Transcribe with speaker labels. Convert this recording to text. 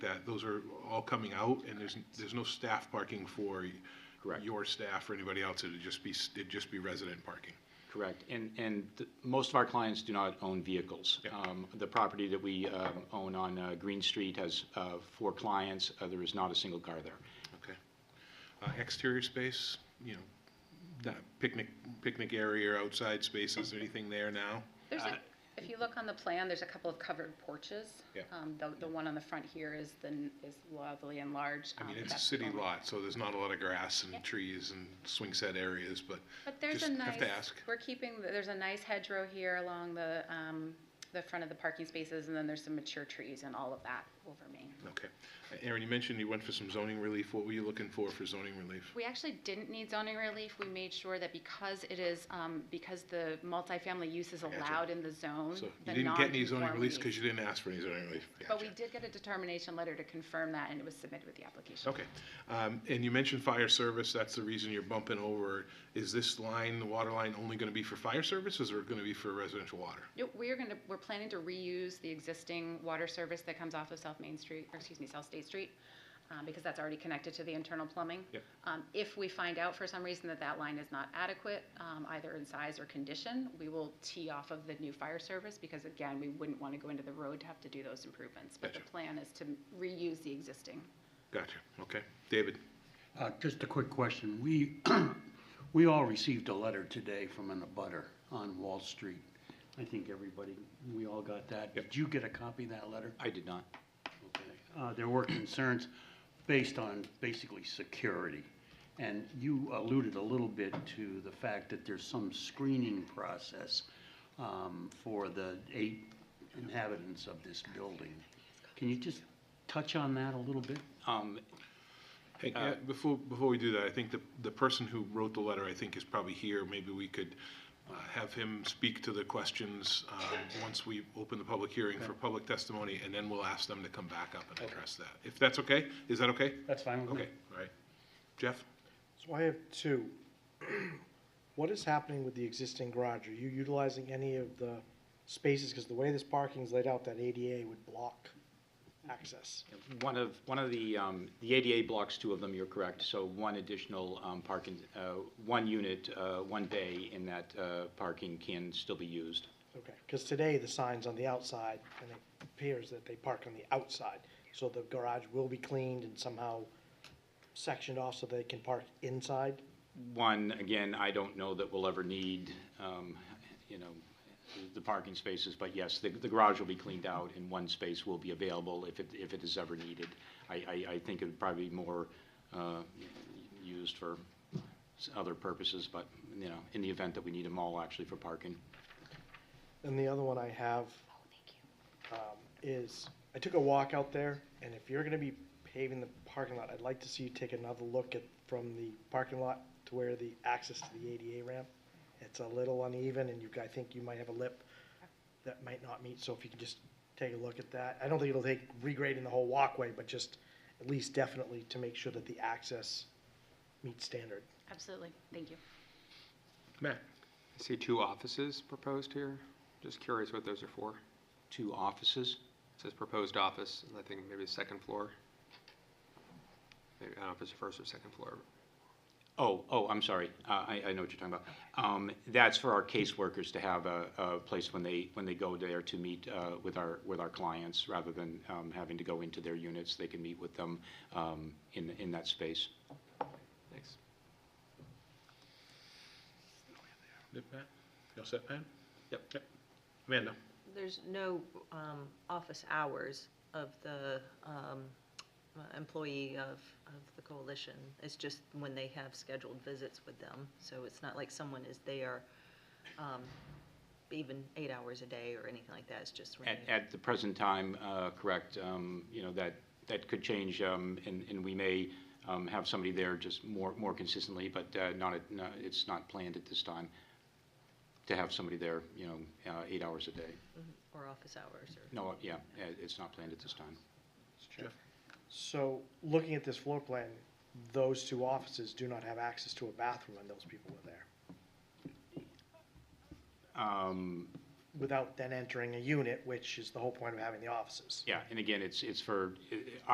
Speaker 1: that those are all coming out, and there's, there's no staff parking for
Speaker 2: Correct.
Speaker 1: your staff or anybody else, it'd just be, it'd just be resident parking.
Speaker 2: Correct. And, and th- most of our clients do not own vehicles.
Speaker 1: Yeah.
Speaker 2: Um, The property that we um, own on uh, Green Street has uh, four clients. Uh, There is not a single car there.
Speaker 1: Okay. Uh, Exterior space, you know, not picnic, picnic area or outside spaces, anything there now?
Speaker 3: There's
Speaker 2: Uh,
Speaker 3: a, if you look on the plan, there's a couple of covered porches.
Speaker 1: Yeah.
Speaker 3: Um, the, the one on the front here is the, n- is lovely and large.
Speaker 1: I mean,
Speaker 3: um,
Speaker 1: it's a
Speaker 3: that's
Speaker 1: city
Speaker 3: the-
Speaker 1: lot, so there's not a lot of grass
Speaker 3: Yeah.
Speaker 1: and trees and swing set areas, but
Speaker 3: But there's a
Speaker 1: Just
Speaker 3: nice,
Speaker 1: have to ask.
Speaker 3: we're keeping, there's a nice hedgerow here along the, um, the front of the parking spaces, and then there's some mature trees and all of that over Main.
Speaker 1: Okay. Uh, Aaron, you mentioned you went for some zoning relief. What were you looking for for zoning relief?
Speaker 3: We actually didn't need zoning relief. We made sure that because it is, um, because the multifamily use is
Speaker 1: Gotcha.
Speaker 3: allowed in the zone,
Speaker 1: So you
Speaker 3: the
Speaker 1: didn't get any zoning relief
Speaker 3: non-conformities.
Speaker 1: because you didn't ask for any zoning relief.
Speaker 3: But we
Speaker 1: Gotcha.
Speaker 3: did get a determination letter to confirm that, and it was submitted with the application.
Speaker 1: Okay. Um, And you mentioned fire service. That's the reason you're bumping over. Is this line, the water line, only going to be for fire services or going to be for residential water?
Speaker 3: No, we're gonna, we're planning to reuse the existing water service that comes off of South Main Street, or excuse me, South State Street, um, because that's already connected to the internal plumbing.
Speaker 1: Yep.
Speaker 3: Um, If we find out for some reason that that line is not adequate, um, either in size or condition, we will tee off of the new fire service, because again, we wouldn't want to go into the road to have to do those improvements. But the
Speaker 1: Gotcha.
Speaker 3: plan is to reuse the existing.
Speaker 1: Gotcha. Okay. David?
Speaker 4: Uh, Just a quick question. We, we all received a letter today from an abutter on Wall Street. I think everybody, we all got that. Did you get a copy of that letter?
Speaker 2: I did not.
Speaker 4: Okay. Uh, There were concerns based on basically security. And you alluded a little bit to the fact that there's some screening process um, for the eight inhabitants of this building. Can you just touch on that a little bit?
Speaker 2: Um,
Speaker 1: Hey, yeah, before, before we do that, I think the, the person who wrote the letter, I think, is probably here. Maybe we could uh, have him speak to the questions um, once we open the public hearing for public testimony, and then we'll ask them to come back up and address that. If that's okay? Is that okay?
Speaker 4: That's fine with me.
Speaker 1: Okay, all right. Jeff?
Speaker 5: So I have two. What is happening with the existing garage? Are you utilizing any of the spaces? Because the way this parking's laid out, that ADA would block access.
Speaker 2: One of, one of the, um, the ADA blocks, two of them, you're correct. So one additional um, parking, uh, one unit, uh, one bay in that uh, parking can still be used.
Speaker 5: Okay, because today the sign's on the outside, and it appears that they park on the outside. So the garage will be cleaned and somehow sectioned off so they can park inside?
Speaker 2: One, again, I don't know that we'll ever need, um, you know, the parking spaces, but yes, the the garage will be cleaned out and one space will be available if it, if it is ever needed. I, I, I think it would probably be more uh, used for s- other purposes, but, you know, in the event that we need them all actually for parking.
Speaker 5: And the other one I have. um, Is, I took a walk out there, and if you're gonna be paving the parking lot, I'd like to see you take another look at, from the parking lot to where the access to the ADA ramp. It's a little uneven, and you, I think you might have a lip that might not meet, so if you can just take a look at that. I don't think it'll take regrading the whole walkway, but just at least definitely to make sure that the access meets standard.
Speaker 3: Absolutely. Thank you.
Speaker 1: Matt?
Speaker 6: I see two offices proposed here. Just curious what those are for.
Speaker 2: Two offices?
Speaker 6: It says proposed office, and I think maybe the second floor. Maybe, I don't know if it's the first or second floor.
Speaker 2: Oh, oh, I'm sorry. Uh, I, I know what you're talking about. Um, That's for our caseworkers to have a, a place when they, when they go there to meet uh, with our, with our clients, rather than um, having to go into their units. They can meet with them um, in, in that space.
Speaker 6: Thanks.
Speaker 1: Yep, Pat? You all set, Pat?
Speaker 6: Yep.
Speaker 1: Yep. Amanda?
Speaker 7: There's no um, office hours of the um, uh, employee of, of the coalition. It's just when they have scheduled visits with them. So it's not like someone is there um, even eight hours a day or anything like that. It's just when
Speaker 2: At,
Speaker 7: they-
Speaker 2: at the present time, uh, correct, um, you know, that, that could change, um, and, and we may um, have somebody there just more, more consistently, but uh, not, at- no, it's not planned at this time to have somebody there, you know, uh, eight hours a day.
Speaker 7: or office hours or.
Speaker 2: No, yeah, it- it's not planned at this time.
Speaker 1: Jeff?
Speaker 5: So, looking at this floor plan, those two offices do not have access to a bathroom, and those people were there.
Speaker 2: Um,
Speaker 5: without then entering a unit, which is the whole point of having the offices.
Speaker 2: Yeah, and again, it's, it's for,